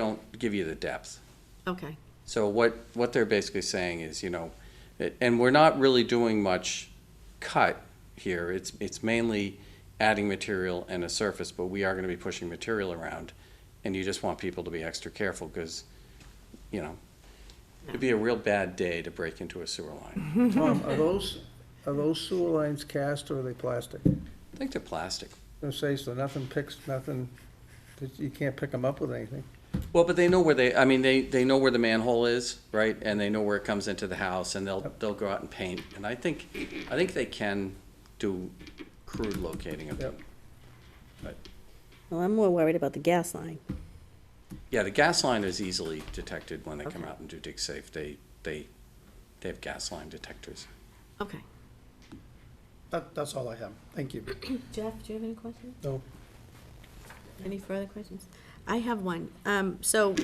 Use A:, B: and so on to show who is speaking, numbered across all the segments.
A: don't give you the depth.
B: Okay,
A: So what, what they're basically saying is, you know, it- and we're not really doing much cut here. It's, it's mainly adding material and a surface, but we are gonna be pushing material around. And you just want people to be extra careful, because, you know, it'd be a real bad day to break into a sewer line.
C: Tom, are those, are those sewer lines cast or are they plastic? I'm
A: I think they're plastic.
C: gonna say, so nothing picks, nothing, you can't pick them up with anything.
A: Well, but they know where they, I mean, they, they know where the manhole is, right? And they know where it comes into the house, and they'll, they'll go out and paint. And I think, I think they can do crude locating of them.
C: Yep.
A: But,
B: well, I'm more worried about the gas line.
A: yeah, the gas line is easily detected when they come out and do dig safe. They, they, they have gas line detectors.
B: Okay.
D: That, that's all I have. Thank you.
B: Jeff, do you have any questions?
D: No.
B: Any further questions? I have one. Um, so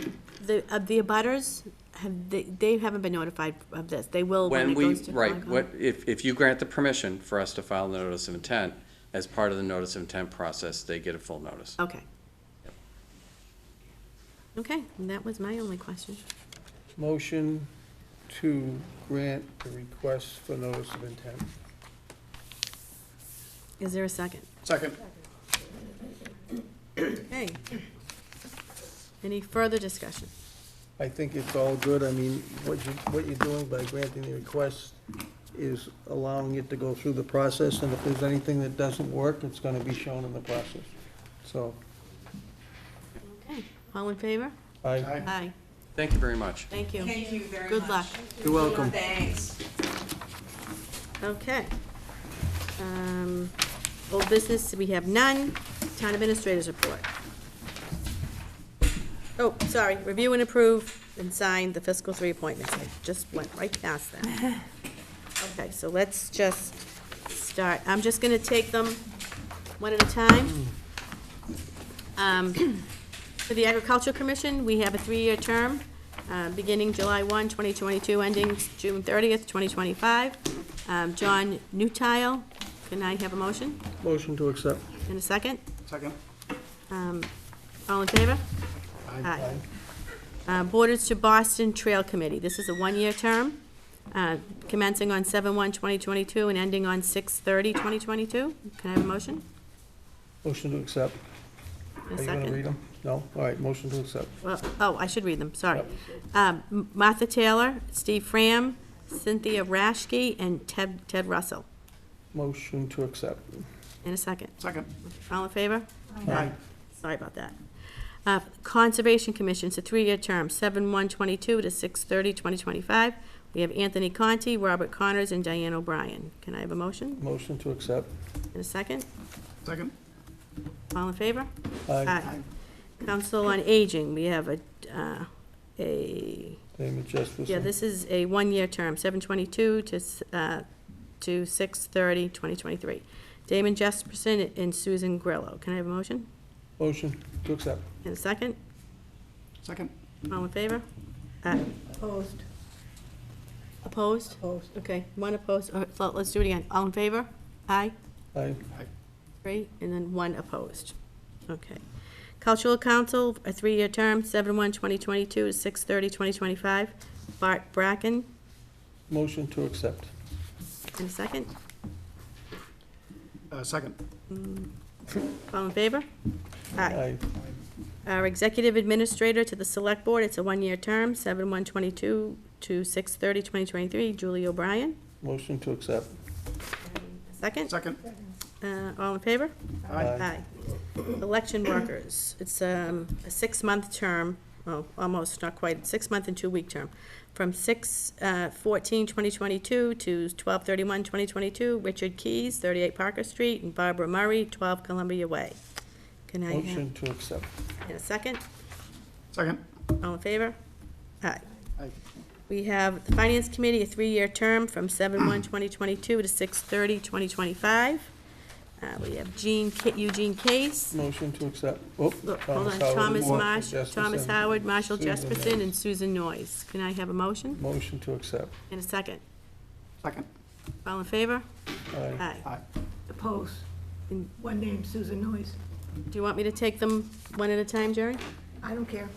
B: the, uh, the abutters, have, they, they haven't been notified of this. They will when
A: When
B: it
A: we,
B: goes to
A: right,
B: Concom.
A: what, if, if you grant the permission for us to file the notice of intent, as part of the notice of intent process, they get a full notice.
B: Okay. Okay, and that was my only question.
C: Motion to grant the request for notice of intent.
B: Is there a second?
D: Second.
B: Okay. Any further discussion?
C: I think it's all good. I mean, what you, what you're doing by granting the request is allowing it to go through the process, and if there's anything that doesn't work, it's gonna be shown in the process. So,
B: Okay, all in favor?
C: I,
D: Aye.
B: Aye,
A: Thank you very much.
B: thank you.
E: Thank you very much.
B: Good luck.
C: you're welcome.
E: Thanks.
B: Okay. Um, Old business, we have none. Town administrators report. Oh, sorry, review and approve and sign the fiscal three appointments. I just went right past that. Okay, so let's just start. I'm just gonna take them one at a time. Um, For the Agricultural Commission, we have a three-year term, uh, beginning July 1, 2022, ending June 30th, 2025. Um, John Newtile, can I have a motion
C: Motion to accept.
B: in a second?
D: Second.
B: Um, All in favor? Aye. Uh, Borders to Boston Trail Committee, this is a one-year term, uh, commencing on 7/1/2022 and ending on 6/30/2022. Can I have a motion
C: Motion to accept.
B: in a
C: Are you gonna read
B: second?
C: them? No? All right, motion to accept.
B: Well, Oh, I should read them, sorry. Um, M- Martha Taylor, Steve Fram, Cynthia Rashke, and Ted Ted Russell,
C: Motion to accept.
B: in a second.
D: Second.
B: All in favor?
D: Aye.
B: Sorry about that. Uh, Conservation Commission, it's a three-year term, seven one twenty-two to six thirty twenty twenty-five. We have Anthony Conti, Robert Connors, and Diane O'Brien. Can I have a motion
C: Motion to accept.
B: in a second?
D: Second.
B: All in favor?
C: Aye.
B: Council on Aging, we have a, uh, a,
C: Damon Jesperson.
B: yeah, this is a one-year term, seven twenty-two to, s- uh, to six thirty twenty twenty-three. Damon Jesperson and Susan Grillo. Can I have a motion
C: Motion to accept.
B: in a second?
D: Second.
B: All in favor? Aye.
E: Opposed.
B: Opposed?
E: Opposed.
B: Okay, one opposed, All right, so let's do it again. All in favor? Aye,
C: Aye.
B: three, and then one opposed. Okay. Cultural Council, a three-year term, seven one 2022 to six thirty 2025. Bart Bracken,
C: Motion to accept.
B: in a second.
D: Uh, second.
B: All in favor? Aye. Our Executive Administrator to the Select Board, it's a one-year term, seven one 22 to six thirty 2023. Julie O'Brien,
C: Motion to accept.
B: second.
D: Second.
B: Uh, All in favor?
D: Aye.
B: Aye. Election workers, it's um, a six-month term, well, almost, not quite, six-month and two-week term, from uh, 6/14/2022 to 12/31/2022, Richard Keys, 38 Parker Street, and Barbara Murray, 12 Columbia Way. Can I have
C: Motion to accept.
B: a second?
D: Second.
B: All in favor? Aye.
D: Aye.
B: We have the Finance Committee, a three-year term from 7/1/2022 to 6/30/2025. Uh, We have Jean, Ca- Eugene Case,
C: Motion to accept. Oop,
B: Look, Hold on,
C: Howard.
B: Thomas
C: Motion
B: Marsh,
C: Jesperson.
B: Thomas Howard, Marshall
C: Susan
B: Jesperson, and Susan Noyes. Can I have a motion
C: Motion to accept.
B: and a second?
D: Second.
B: All in favor?
C: Aye.
B: Aye.
D: Aye.
E: Opposed.
B: And-
E: One name, Susan Noyes.
B: Do you want me to take them one at a time, Jerry?
E: I don't care.